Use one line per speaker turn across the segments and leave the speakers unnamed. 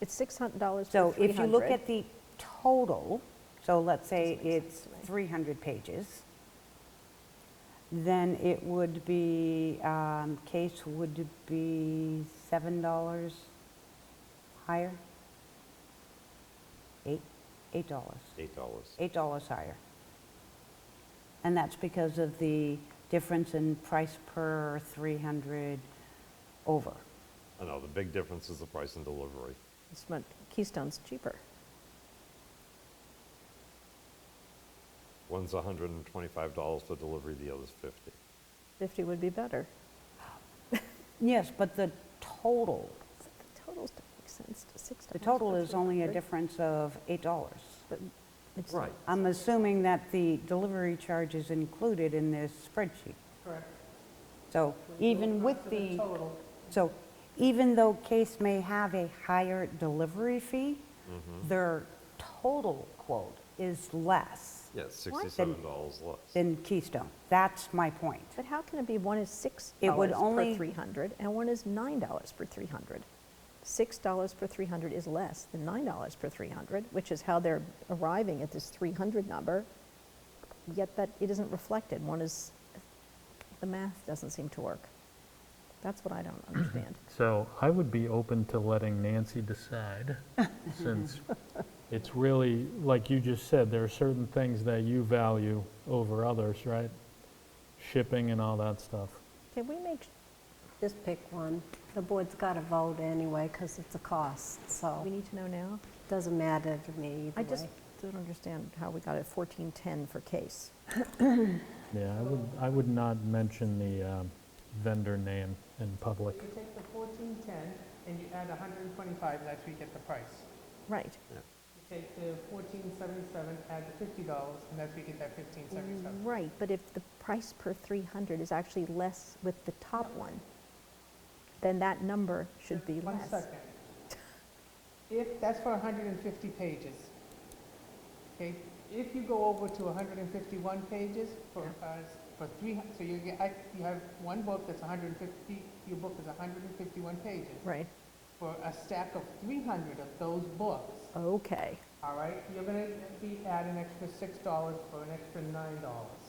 It's $600
So
for 300.
if you look at the total, so let's say
Doesn't make sense
it's
to me.
300 pages, then it would be, um, case would be $7 higher? Eight, $8, dollars.
Eight dollars.
$8 higher. And that's because of the difference in price per 300 over.
I know, the big difference is the price and delivery.
It's much- Keystone's cheaper.
One's hundred and twenty-five dollars for delivery, the other's fifty.
50 would be better.
Yes, but the total
So The totals don't make sense to $6.
The total
for
is only a
300,
difference of $8.
but it's-
Right.
I'm assuming that the delivery charge is included in this spreadsheet.
Correct.
So even with
To
the,
total,
so even though Case may have a higher delivery fee, their total quote is less
Yeah, it's sixty-seven dollars less.
than Keystone. That's my point.
But how can it be one is $6
It would
per
only-
300 and one is $9 per 300? $6 per 300 is less than $9 per 300, which is how they're arriving at this 300 number, yet that it isn't reflected. One is, the math doesn't seem to work. That's what I don't understand.
So I would be open to letting Nancy decide, since it's really, like you just said, there are certain things that you value over others, right? Shipping and all that stuff.
Can we make,
Just pick one. The board's got to vote anyway, because it's a cost, so
we need to know now?
it doesn't matter to me
I
either
just
way.
don't understand how we got a 1410 for case.
Yeah, I would, I would not mention the um, vendor name in public.
You take the fourteen ten and you add hundred and twenty-five, that's where you get the price.
Right.
You take the fourteen seventy-seven, add the fifty dollars, and that's where you get that fifteen seventy-seven.
Right, but if the price per 300 is actually less with the top one, then that number should be
One
less.
second. If, that's for hundred and fifty pages. Okay, if you go over to hundred and fifty-one pages for, uh, for three, hun- so you get, I, you have one book that's hundred and fifty, your book is hundred and fifty-one pages.
Right,
For a stack of three hundred of those books,
okay.
All right, you're gonna be add an extra six dollars for an extra nine dollars.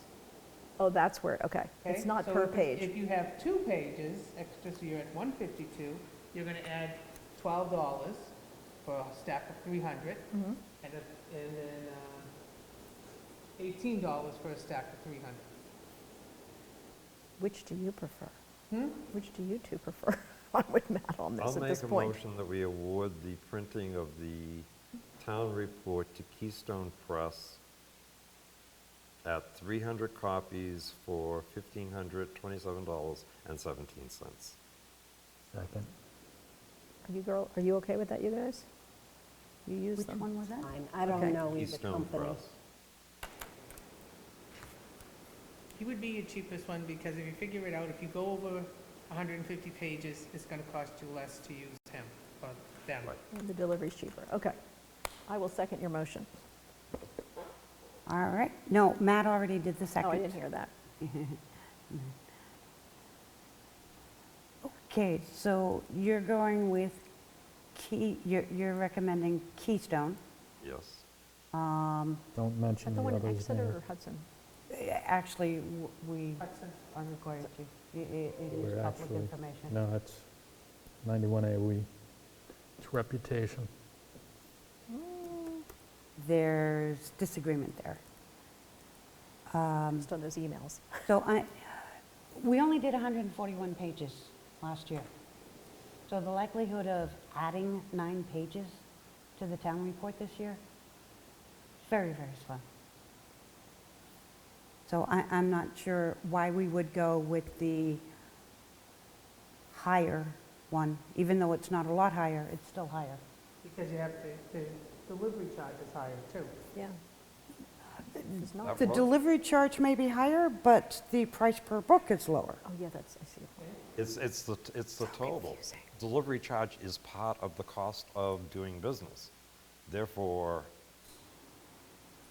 Oh, that's where, okay. It's not per page.
If you have two pages, extra, so you're at one fifty-two, you're gonna add twelve dollars for a stack of three hundred,
Mhm.
and a- and then um, eighteen dollars for a stack of three hundred.
Which do you prefer? Which do you two prefer? I would mat on
I'll
this at
make
this
a
point.
motion that we award the printing of the town report to Keystone Press at three hundred copies for fifteen hundred twenty-seven dollars and seventeen cents.
Second.
Are you girl, are you okay with that, you guys? You use
Which
them?
one was that?
Fine, I
Okay.
don't know either
Keystone
company.
Press.
He would be your cheapest one, because if you figure it out, if you go over hundred and fifty pages, it's gonna cost you less to use him, or them.
Right.
The delivery's cheaper, okay. I will second your motion. Oh,
All right. No, Matt already did the second.
Oh, I didn't hear that.
Okay, so you're going with Key, you're, you're recommending Keystone.
Yes.
Um,
Don't
Is
mention
that the
the
one in
other's
Exeter
name.
or Hudson?
Actually, w- we
Hudson.
are required to, i- i- it
We're
is public
actually-
information.
No, it's 91A We. It's reputation.
Mm.
There's disagreement there.
Just on those emails.
So I, we only did 141 pages last year. So the likelihood of adding nine pages to the town report this year, very, very slim. So I, I'm not sure why we would go with the higher one, even though it's not a lot higher, it's still higher.
Because you have, the, the delivery charge is higher too.
Yeah. It's not,
That-
The delivery charge may be higher, but the price per book is lower.
oh, yeah, that's, I see.
It's, it's the, it's the total. Delivery charge is part of the cost of doing business. Therefore,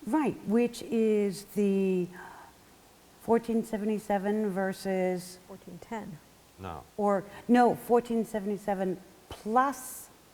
Right, which is the 1477 versus,
1410.
no,
or, no, 1477 plus